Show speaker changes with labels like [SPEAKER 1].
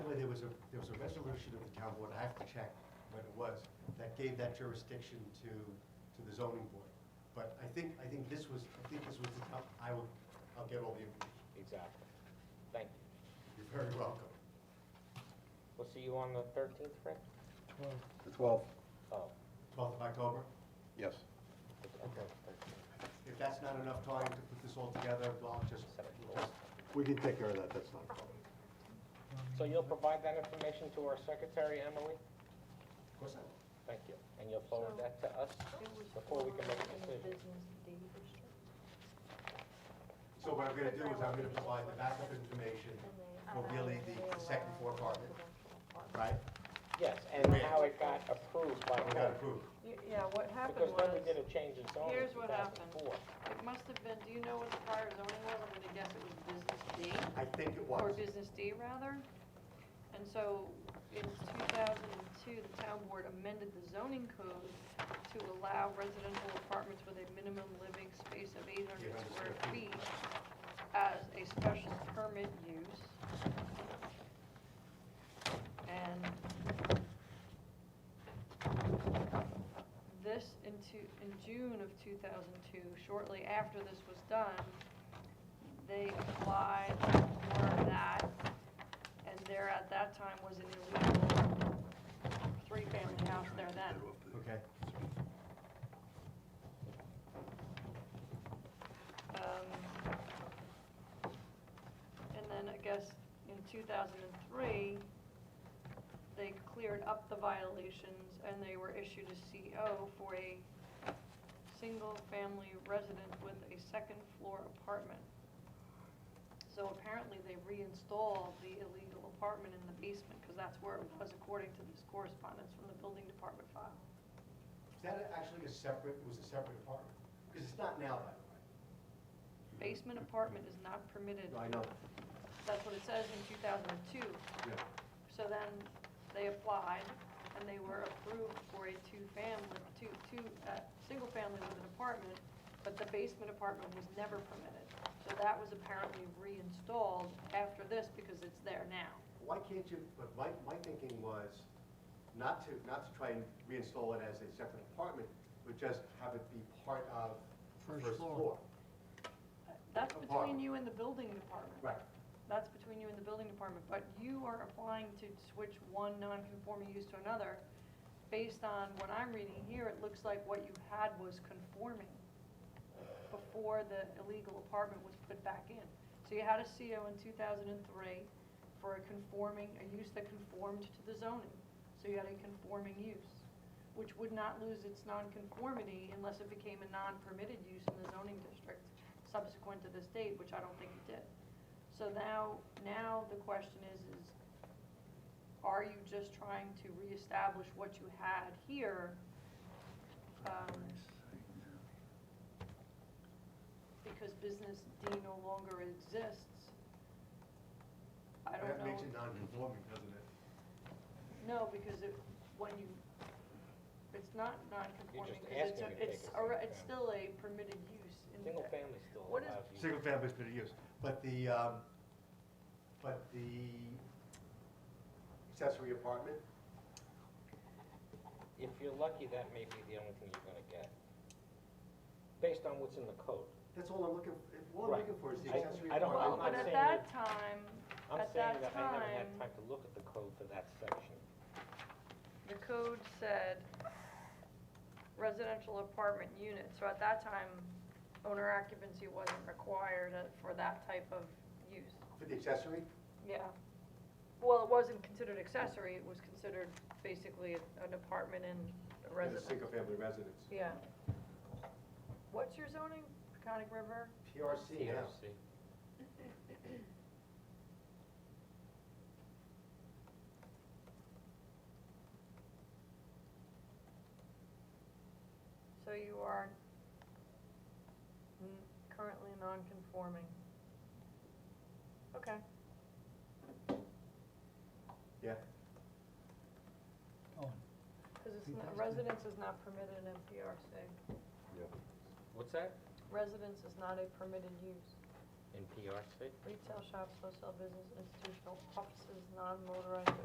[SPEAKER 1] there was a resolution of the town board, I have to check what it was, that gave that jurisdiction to, to the zoning board. But I think, I think this was, I think this was the town, I will, I'll get all the information.
[SPEAKER 2] Exactly. Thank you.
[SPEAKER 1] You're very welcome.
[SPEAKER 2] We'll see you on the thirteenth, Fred?
[SPEAKER 3] The 12th,
[SPEAKER 2] Oh,
[SPEAKER 1] 12th of October,
[SPEAKER 3] yes.
[SPEAKER 2] okay, 13th.
[SPEAKER 1] if that's not enough time to put this all together, I'll just, we'll just
[SPEAKER 3] We can take care of that, that's not a problem.
[SPEAKER 2] So you'll provide that information to our secretary, Emily?
[SPEAKER 1] of course I will.
[SPEAKER 2] Thank you. And you'll forward that to us before we can make a decision?
[SPEAKER 1] So what I'm gonna do is I'm gonna provide the backup information for really the second floor apartment, right?
[SPEAKER 2] Yes, and how it got approved by
[SPEAKER 1] We got
[SPEAKER 2] her.
[SPEAKER 1] approved.
[SPEAKER 4] Y- Yeah, what happened
[SPEAKER 2] Because then we did
[SPEAKER 4] was,
[SPEAKER 2] a change in zoning in
[SPEAKER 4] Here's what happened.
[SPEAKER 2] 2004.
[SPEAKER 4] it must have been, do you know what the prior zoning was? I'm gonna guess it was business D,
[SPEAKER 1] I think it
[SPEAKER 4] or
[SPEAKER 1] was.
[SPEAKER 4] business D rather. And so in two thousand and two, the town board amended the zoning code to allow residential apartments with a minimum living space of eight hundred
[SPEAKER 1] 800
[SPEAKER 4] square
[SPEAKER 1] square feet.
[SPEAKER 4] feet as a special permit use. And this into, in June of two thousand two, shortly after this was done, they applied for that, and there at that time was an illegal three-family house there then.
[SPEAKER 1] Okay.
[SPEAKER 4] Um, And then I guess in two thousand and three, they cleared up the violations and they were issued a CO for a single-family resident with a second-floor apartment. So apparently they reinstalled the illegal apartment in the basement, because that's where it was according to this correspondence from the building department file.
[SPEAKER 1] Is that actually a separate, was a separate apartment? Because it's not now that way.
[SPEAKER 4] Basement apartment is not permitted.
[SPEAKER 1] I know.
[SPEAKER 4] That's what it says in two thousand and two.
[SPEAKER 1] Yeah.
[SPEAKER 4] So then they applied and they were approved for a two-family, two, two, uh, single family with an apartment, but the basement apartment was never permitted. So that was apparently reinstalled after this because it's there now.
[SPEAKER 1] Why can't you, but my, my thinking was not to, not to try and reinstall it as a separate apartment, but just have it be part of the
[SPEAKER 5] First
[SPEAKER 1] first
[SPEAKER 5] floor.
[SPEAKER 1] floor.
[SPEAKER 4] That's between
[SPEAKER 1] Apartment.
[SPEAKER 4] you and the building department.
[SPEAKER 1] Right.
[SPEAKER 4] That's between you and the building department, but you are applying to switch one non-conforming use to another. Based on what I'm reading here, it looks like what you had was conforming before the illegal apartment was put back in. So you had a CO in two thousand and three for a conforming, a use that conformed to the zoning. So you had a conforming use, which would not lose its nonconformity unless it became a non-permitted use in the zoning district subsequent to this date, which I don't think it did. So now, now the question is, is are you just trying to reestablish what you had here? Um, Because business D no longer exists. I don't know.
[SPEAKER 1] That makes it non-conforming, doesn't it?
[SPEAKER 4] No, because it, when you, it's not
[SPEAKER 2] You're
[SPEAKER 4] non-conforming,
[SPEAKER 2] just
[SPEAKER 4] 'cause
[SPEAKER 2] asking
[SPEAKER 4] it's,
[SPEAKER 2] to
[SPEAKER 4] a-
[SPEAKER 2] take
[SPEAKER 4] it's,
[SPEAKER 2] it,
[SPEAKER 4] a re-
[SPEAKER 2] yeah.
[SPEAKER 4] it's still a permitted use in
[SPEAKER 2] Single
[SPEAKER 4] the,
[SPEAKER 2] family still
[SPEAKER 4] What is-
[SPEAKER 2] allows you.
[SPEAKER 1] Single family is permitted use, but the, um, but the accessory apartment,
[SPEAKER 2] If you're lucky, that may be the only thing you're gonna get, based on what's in the code.
[SPEAKER 1] that's all I'm looking, all I'm
[SPEAKER 2] Right.
[SPEAKER 1] looking for is the
[SPEAKER 2] I-
[SPEAKER 1] accessory
[SPEAKER 2] I don't-
[SPEAKER 4] well,
[SPEAKER 1] apartment.
[SPEAKER 2] I'm
[SPEAKER 4] but at
[SPEAKER 2] saying
[SPEAKER 4] that time,
[SPEAKER 2] I'm
[SPEAKER 4] At
[SPEAKER 2] saying
[SPEAKER 4] that
[SPEAKER 2] that I never had
[SPEAKER 4] time-
[SPEAKER 2] time to look at the code for that section.
[SPEAKER 4] the code said residential apartment unit, so at that time, owner occupancy wasn't required uh, for that type of use,
[SPEAKER 1] For the accessory,
[SPEAKER 4] yeah. Well, it wasn't considered accessory, it was considered basically an apartment and a
[SPEAKER 1] for the
[SPEAKER 4] residence.
[SPEAKER 1] single family residence.
[SPEAKER 4] Yeah. What's your zoning, Peconic River?
[SPEAKER 1] PRC now.
[SPEAKER 2] TRC.
[SPEAKER 4] So you are n- currently non-conforming. Okay.
[SPEAKER 1] Yeah,
[SPEAKER 4] Because it's not, residence is not permitted in MPRC.
[SPEAKER 2] What's that?
[SPEAKER 4] Residence is not a permitted use.
[SPEAKER 2] In PRC?
[SPEAKER 4] Retail shops, wholesale business, institutional offices, non-motorized